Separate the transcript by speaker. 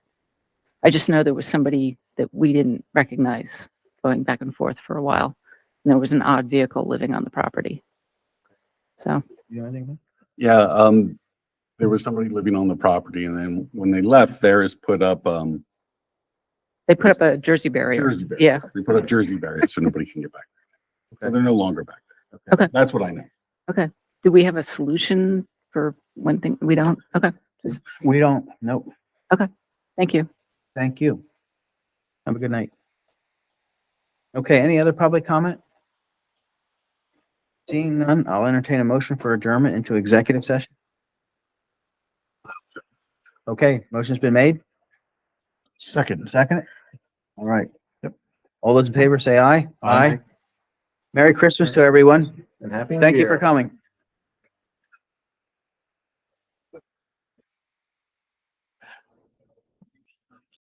Speaker 1: I just know there was somebody that we didn't recognize going back and forth for a while. And there was an odd vehicle living on the property. So,
Speaker 2: You know anything?
Speaker 3: Yeah, um, there was somebody living on the property and then when they left, there is put up, um,
Speaker 1: they put up a Jersey barrier.
Speaker 3: Jersey
Speaker 1: Yeah.
Speaker 3: barriers. They put up Jersey barriers so nobody can get back. there. So
Speaker 2: Okay.
Speaker 3: they're no longer back there.
Speaker 1: Okay.
Speaker 3: That's what I know.
Speaker 1: Do we have a solution for one thing? We don't? Okay,
Speaker 2: We don't, nope.
Speaker 1: thank you.
Speaker 2: Thank you. Have a good night. Okay, any other public comment? Seeing none, I'll entertain a motion for adjournment into executive session. Okay, motion's been made. Second. Second. All right. Yep. All those in favor say aye. Aye. Merry Christmas to everyone.
Speaker 4: And happy. New
Speaker 2: Thank you
Speaker 4: Year.
Speaker 2: for coming.